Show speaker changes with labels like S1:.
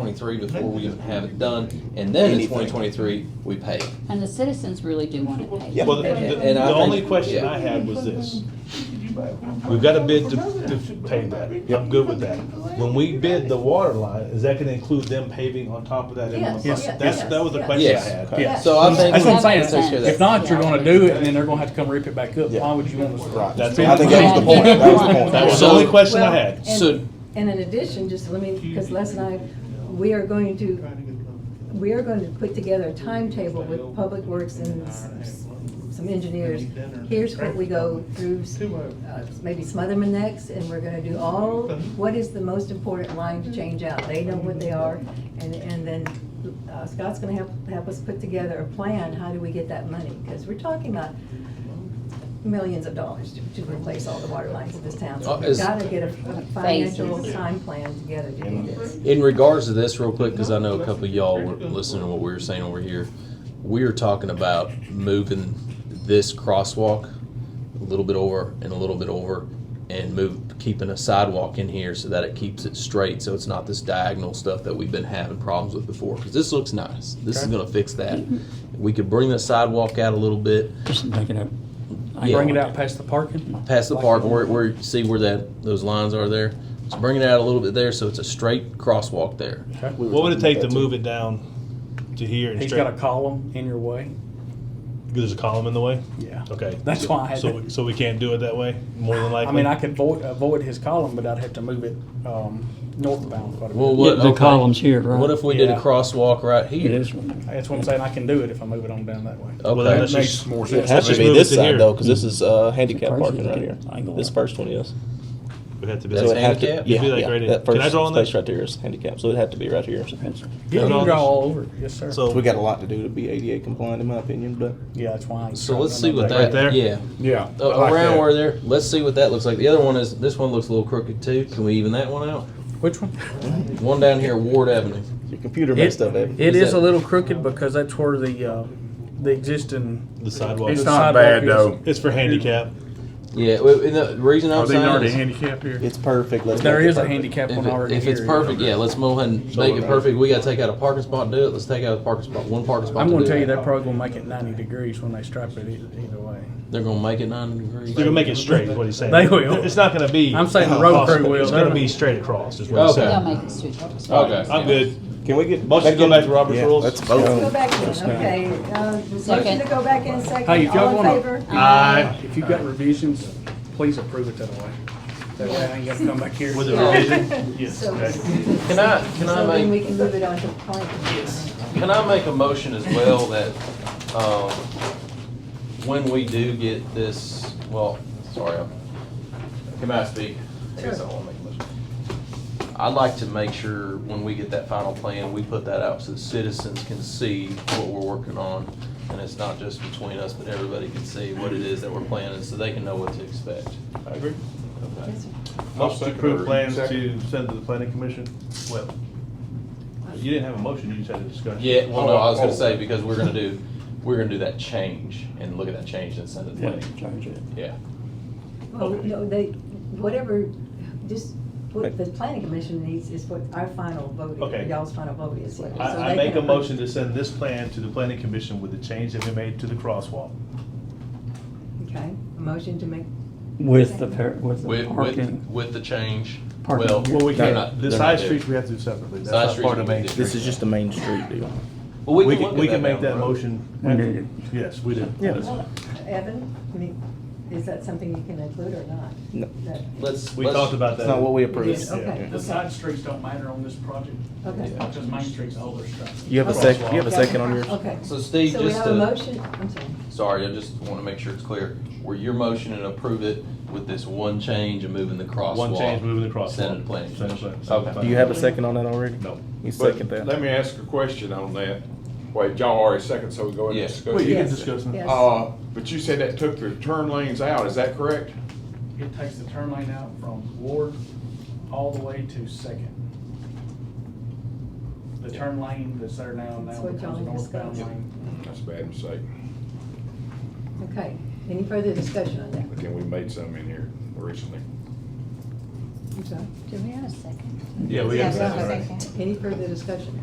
S1: twenty-three before we even have it done, and then in
S2: Anything.
S1: twenty twenty-three, we pay it.
S3: And the citizens really do want it paid.
S2: Yeah.
S4: Well, the,
S1: And-
S4: the-
S1: and I
S4: the
S1: think-
S4: only question
S1: yeah.
S4: I had was this. We've got a bid to, to pay that. I'm good with that. When we bid the water line, is that gonna include them paving on top of that? in one
S5: Yes,
S4: place?
S5: yes,
S4: That's,
S5: yes,
S4: that was the
S5: yes.
S4: question I
S1: Yes.
S4: had.
S5: Okay.
S6: Yeah.
S1: So I think.
S6: That's what I'm
S3: That makes
S6: saying.
S3: sense.
S6: If not, you're gonna do it, and then they're gonna have to come rip it back up.
S2: Yeah.
S6: Why would you want to?
S2: Right.
S4: That's-
S2: I think that was the point, that was the point.
S4: That was the
S1: So-
S4: only question I
S5: Well,
S4: had.
S5: and-
S1: So-
S5: And in addition, just let me, because Les and I, we are going to, we are going to put together a timetable with Public Works and s- some engineers. Here's what we go through, uh, maybe Smotherman next, and we're gonna do all, what is the most important line to change out? They know what they are, and, and then uh, Scott's gonna help, help us put together a plan, how do we get that money? Because we're talking about millions of dollars to, to replace all the water lines in this town. So
S1: Uh,
S5: we've
S1: is-
S5: gotta get a financial
S3: Phases.
S5: time plan together to do this.
S1: In regards to this, real quick, because I know a couple of y'all were listening to what we were saying over here. We are talking about moving this crosswalk a little bit over and a little bit over and move, keeping a sidewalk in here so that it keeps it straight, so it's not this diagonal stuff that we've been having problems with before. Because this looks nice. This is gonna fix that. We could bring the sidewalk out a little bit,
S6: Just make it up.
S1: Yeah.
S6: Bring it out past the parking.
S1: past the park where, where you see where that, those lines are there. So bring it out a little bit there, so it's a straight crosswalk there.
S6: Okay.
S2: We were
S4: What would it
S2: talking
S4: take to
S2: about that,
S4: move it down to here and
S6: He's
S4: straight?
S6: got a column in your way.
S4: There's a column in the way?
S6: Yeah.
S4: Okay.
S6: That's why I had
S4: So,
S6: to-
S4: we- so we can't do it that way, more than likely?
S6: I mean, I could avoid, avoid his column, but I'd have to move it, um, northbound quite a
S1: Well,
S6: bit.
S1: what,
S7: Yeah, the
S1: okay.
S7: columns here, right?
S1: What if we did a
S6: Yeah.
S1: crosswalk right
S7: It
S1: here?
S7: is one.
S6: That's what I'm saying, I can do it if I move it on down that way.
S4: Well, then
S1: Okay.
S4: let's
S6: That
S4: just-
S6: makes more
S2: It has
S6: sense to
S2: to
S4: Let's
S2: be
S4: move it
S2: this
S4: to
S2: side
S4: here.
S2: though, because this is uh, handicap
S7: Surprised
S2: parking
S7: you
S2: right here.
S7: didn't angle
S2: This
S7: that.
S2: first one is.
S4: We'd have to be.
S2: So it'd have to-
S1: handicap?
S2: Yeah,
S4: Be like
S2: yeah,
S4: right
S2: that
S4: here. Can I draw on
S2: first
S4: that?
S2: space right there is handicap, so it'd have to be right here.
S6: Yeah, you
S4: Put it
S6: can
S4: on
S6: draw
S4: this-
S6: all over, it. yes, sir.
S4: So-
S2: We got a lot to do to be ADA compliant, in my opinion, but
S6: Yeah, that's why. I ain't
S1: So
S6: trying
S1: let's
S6: to
S1: see
S6: do
S1: what
S6: that.
S1: that,
S4: Right there?
S1: yeah.
S6: Yeah.
S1: Uh, around where there, let's see what that looks like. The other one is, this one looks a little crooked too. Can we even that one out?
S6: Which one?
S1: One down here, Ward Avenue.
S2: your computer
S6: It-
S2: messed up it.
S6: It
S1: Is
S6: is
S1: Mm-hmm. that-
S6: a little crooked because that's where the, uh, the existing.
S4: The sidewalk.
S6: the
S4: It's
S6: sidewalk
S4: not
S8: bad,
S6: is.
S8: though.
S4: It's for handicap.
S1: Yeah, well, and the reason I'm
S6: Oh,
S8: Are they
S1: saying
S8: already
S1: is,
S8: handicapped here?
S2: It's perfect. Let's
S6: There
S2: make it
S6: is a
S2: perfect.
S6: handicap
S1: if,
S6: one
S1: it-
S6: already
S1: if it's
S6: here.
S1: perfect, yeah, let's move ahead and make it perfect. We gotta take out a parking spot and do it. Let's take out a parking spot, one parking spot.
S6: I'm
S1: to
S6: gonna
S1: do
S6: tell you,
S1: it.
S6: they're probably gonna make it ninety degrees when they stripe it e- either way.
S1: They're gonna make it ninety degrees.
S4: They're gonna make it straight, is what he's saying.
S6: They will.
S4: It's not gonna be.
S6: I'm saying the road crew
S4: across,
S6: will.
S4: It's gonna be straight across, is what he's
S1: Okay.
S3: They'll
S4: saying.
S3: make it suitable.
S1: Okay.
S4: I'm good.
S2: Can we get?
S4: Motion to go
S2: in-
S4: back to Robert's
S2: yeah,
S4: rules?
S2: Let's
S5: Let's go
S2: vote.
S5: back in, okay. Uh, Motion
S3: Second.
S5: to go back in second.
S6: Hey, if y'all
S5: All in
S6: wanna-
S5: favor?
S4: Aye.
S6: If you've got revisions, please approve it that way. That way I ain't gotta come back here.
S4: With the revision?
S6: Yes.
S5: So-
S4: Okay.
S1: Can I, can
S5: So then
S1: I
S5: we
S1: make,
S5: can move it on to the plan.
S1: can I make a motion as well that, um, when we do get this, well, sorry, I'm, can I speak? I guess I wanna make a motion. I'd like to make sure when we get that final plan, we put that out so that citizens can see what we're working on. And it's not just between us, but everybody can see what it is that we're planning, so they can know what to expect.
S4: I agree.
S1: Okay.
S5: Yes, sir.
S4: Motion to approve plans to send to the planning commission? Well, you didn't have a motion, you just had a discussion. Oh,
S1: Yeah, well, no, I was gonna say, because we're gonna do, we're gonna do that change and look at that change and send it to
S7: Yeah,
S1: them.
S7: change it.
S1: Yeah.
S5: Well,
S4: Okay.
S5: no, they, whatever, just, what the planning commission needs is what our final vote
S4: Okay.
S5: is, y'all's final vote is. So
S4: I, I
S5: they
S4: make
S5: can
S4: a
S5: approve.
S4: motion to send this plan to the planning commission with the change that we made to the crosswalk.
S5: Okay, a motion to make,
S7: With the, par- with the
S1: With, with,
S7: parking.
S1: with the change,
S7: Parking.
S1: well.
S7: Well, we
S1: they're
S2: can't.
S1: not-
S4: The
S1: they're
S4: side
S1: not
S4: streets
S1: due.
S4: we have to do separately. That's
S1: Side
S4: not
S1: streets
S4: part of
S1: we
S4: Main
S1: do.
S4: Street.
S2: This is just the main street deal.
S1: Well,
S4: We
S1: look
S4: can,
S1: at
S4: we can make
S1: down the
S4: that
S1: road.
S4: motion.
S7: We need it.
S4: Yes, we do.
S2: Yeah.
S4: That's-
S5: Evan, I mean, is that something you can include or not?
S2: No.
S5: That-
S1: Let's.
S4: We
S1: let's-
S4: talked about that.
S2: It's not what we approved.
S5: Yeah, okay.
S6: The side streets don't matter on this project,
S5: Okay.
S6: because Main Street's older stuff.
S2: You have a sec, you have a second on yours?
S5: Okay.
S1: So Steve,
S5: So we
S1: just
S5: have
S1: to-
S5: a motion, I'm sorry.
S1: Sorry, I just wanna make sure it's clear. Were your motion and approve it with this one change and moving the crosswalk?
S4: One change, moving the crosswalk.
S1: Send it to planning.
S4: Send it to
S1: commission.
S4: planning.
S1: Okay.
S2: Do you have a second on that already?
S4: No.
S2: You
S8: But
S2: second that?
S8: Let me ask a question on that. Wait, y'all already second, so we go ahead
S1: Yeah.
S8: and discuss.
S4: Well, you can
S5: Yes.
S4: discuss now.
S5: Yes.
S8: Uh, but you said that took the turn lanes out, is that correct?
S6: It takes the turn lane out from Ward all the way to Second. The turn lane that's there now,
S5: That's
S6: now
S5: what
S6: becomes a
S5: y'all
S6: northbound
S5: discussed.
S6: lane.
S8: That's a bad mistake,
S5: Okay, any further discussion on that?
S8: but then we made some in here recently.
S5: I'm sorry.
S9: Do we have a second?
S3: Yeah, we have a
S4: Yes,
S3: second.
S4: a
S3: right?
S4: second.
S5: Any further discussion?